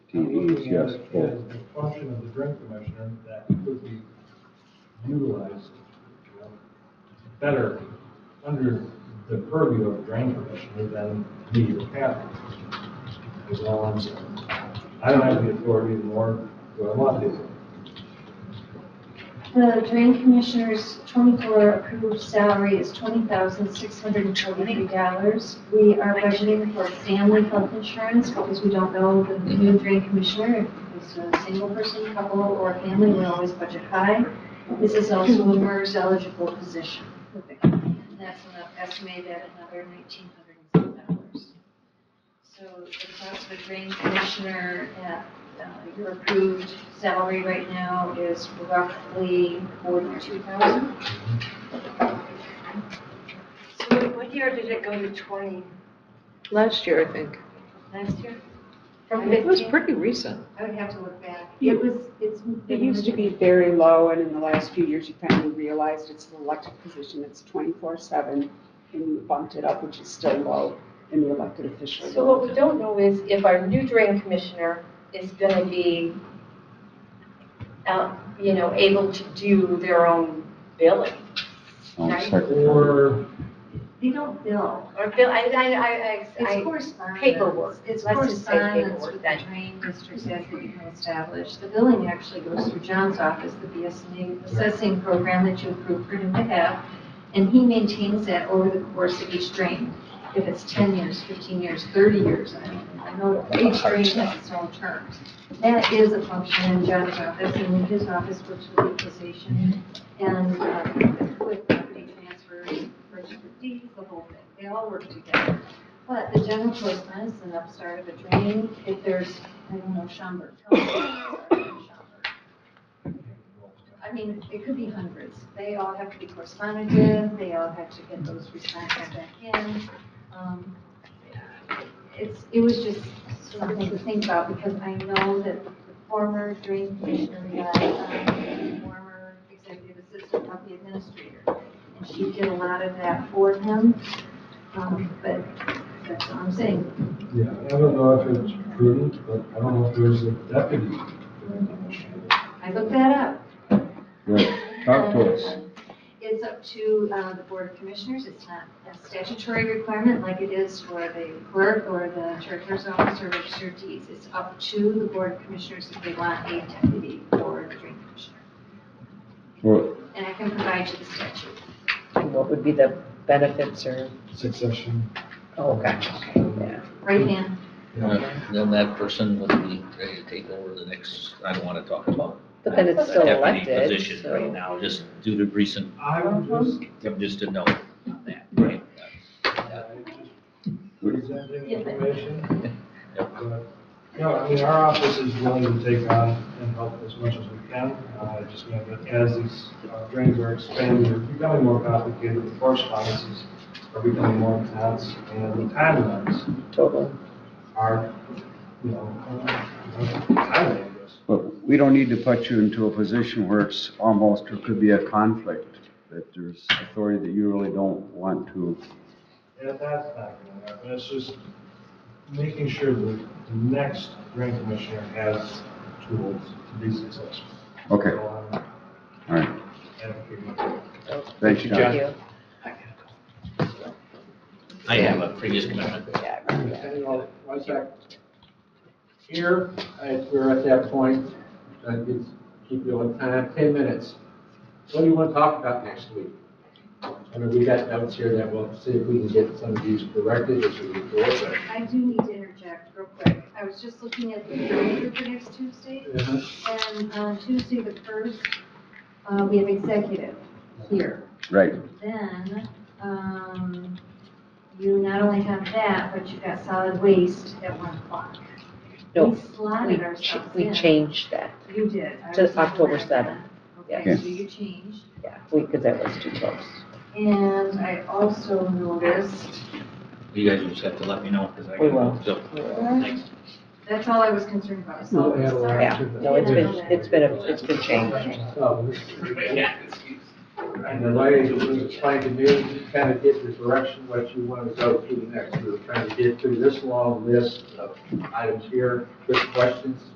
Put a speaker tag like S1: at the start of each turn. S1: is,
S2: looking at
S1: yes,
S2: it
S1: full.
S2: As the function of the drain commissioner, that could be utilized you know, better under the purview of drain commissioner than the captain. Is all I'm saying. I don't have the authority nor do I want to.
S3: The drain commissioner's twenty-four approved salary is twenty thousand six hundred and forty-three dollars. We are budgeting for family health insurance because we don't know the new drain commissioner. If it's a single person, couple, or family, we always budget high. This is also a MERS eligible position. And that's an- estimated at another nineteen hundred and some dollars. So the cost of a drain commissioner at uh, your approved salary right now is roughly forty-two thousand.
S4: So what year did it go to 20
S5: Last year, I think.
S4: last year?
S3: From
S5: It was
S3: fifteen,
S5: pretty recent.
S3: I would have to look back.
S6: Yeah.
S3: It was, it's.
S6: It used to be very low, and in the last few years, you finally realized it's an elected position, it's twenty-four seven, and you bumped it up, which is still low in the elected official.
S4: So what we don't know is if our new drain commissioner is going to be, out- you know, able to do their own billing.
S1: Um,
S4: Right.
S1: secretary.
S2: Or,
S3: They don't bill.
S4: Or bill, I, I, I-
S3: It's
S4: I,
S3: correspondence.
S4: paperwork.
S3: It's
S4: Let's just say
S3: correspondence
S4: paperwork
S3: with the
S4: then.
S3: drain districts as they become established. The billing actually goes through John's office, the BSNA assessing program that you approved for him to have. And he maintains that over the course of each drain. If it's ten years, fifteen years, thirty years, I don't know. I know each drain has its own terms. That is a function in John's office, and in his office works with equalization and uh, with property transfers, registered deeds, the whole thing. They all work together. But the general correspondence is an upstart of a drain, if there's, I don't know, Schaumburg. tell me what's upstart in Schaumburg. I mean, it could be hundreds. They all have to be corresponded with, they all have to get those responses back in. Um, It's, it was just something to think about, because I know that the former drain commissioner relied on the former executive assistant of the administrator. And she did a lot of that for him, um, but that's all I'm saying.
S2: yeah, I don't know if it's prudent, but I don't know if there's a deputy. drain commissioner.
S3: I looked that up.
S1: Right, talk to us.
S3: It's up to uh, the Board of Commissioners. It's not a statutory requirement like it is for the clerk or the treasurer's office or register of deeds. It's up to the Board of Commissioners if they want a deputy or a drain commissioner.
S1: Well,
S3: And I can provide you the statute.
S5: What would be the benefits or,
S2: Succession.
S5: oh, gosh, yeah.
S3: Right, Dan?
S7: Then that person would be ready to take over the next, I don't want to talk about
S5: But then it's still
S7: deputy
S5: elected,
S7: position right
S5: so.
S7: now, just due to recent,
S2: I would just
S7: just a note on that, right?
S2: presenting
S3: Yeah.
S2: information.
S7: Yep.
S2: But, No, I mean, our office is willing to take on and help as much as we can. Uh, just know that as these uh, drains are expanding, they're becoming more complicated, the correspondences are becoming more intense, and the timelines
S5: Total.
S2: are, you know, uh, timely, I guess.
S1: But we don't need to put you into a position where it's almost, or could be a conflict, that there's authority that you really don't want to.
S2: Yeah, that's not gonna happen, it's just making sure that the next drain commissioner has tools to be successful.
S1: Okay,
S2: So um, I'm-
S1: all right.
S5: Thank
S1: Thanks,
S5: you.
S1: John.
S7: I have a previous commitment.
S5: Yeah,
S8: And, well, once I- Here, I- we're at that point, I could keep you on time, ten minutes. What do you want to talk about next week? I mean, we got notes here that we'll see if we can get some of these corrected as we go forward.
S3: I do need to interject real quick. I was just looking at the calendar for next Tuesday.
S8: uh,
S3: And on Tuesday, the first, uh, we have executive here.
S1: Right,
S3: Then, um, you not only have that, but you've got solid waste at one o'clock.
S5: No,
S3: We slotted
S5: we,
S3: ourselves
S5: ch- we
S3: in.
S5: changed that,
S3: You did. I
S5: to
S3: was not
S5: October
S3: aware of
S5: seventh.
S3: that. Okay,
S1: Yes.
S3: so you changed.
S5: yeah, because that was too close.
S3: And I also noticed,
S7: You guys just have to let me know, because I.
S5: We will.
S7: So, thanks.
S3: that's all I was concerned about. So,
S8: No, add on
S3: sorry.
S5: Yeah,
S8: to the- Oh,
S5: no, it's been, it's been, a- it's been changed.
S8: So, And the way it was explained to me, you kind of get the direction, what you want to go to next. We were trying to get through this long list of items here, with questions.